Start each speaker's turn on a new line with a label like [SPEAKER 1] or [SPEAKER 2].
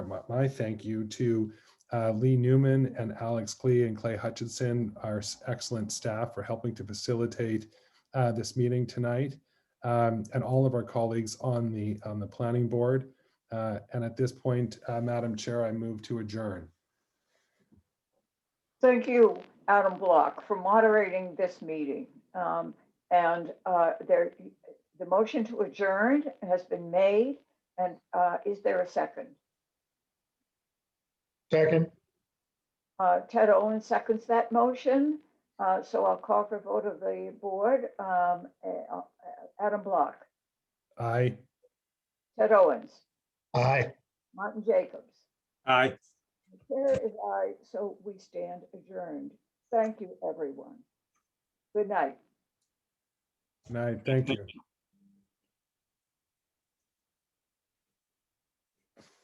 [SPEAKER 1] my thank you to uh, Lee Newman and Alex Klee and Clay Hutchinson, our s- excellent staff for helping to facilitate uh, this meeting tonight, um, and all of our colleagues on the, on the planning board. Uh, And at this point, uh, Madam Chair, I move to adjourn.
[SPEAKER 2] Thank you, Adam Block, for moderating this meeting. Um, And uh, there, the motion to adjourn has been made, and uh, is there a second?
[SPEAKER 3] Second,
[SPEAKER 2] Uh, Ted Owen seconds that motion, Uh, so I'll call for vote of the board. Um, uh, Adam Block,
[SPEAKER 1] Aye.
[SPEAKER 2] Ted Owens,
[SPEAKER 3] aye.
[SPEAKER 2] Martin Jacobs.
[SPEAKER 4] Aye.
[SPEAKER 2] There is I, so we stand adjourned. Thank you, everyone. Good night.
[SPEAKER 1] Good night. Thank you.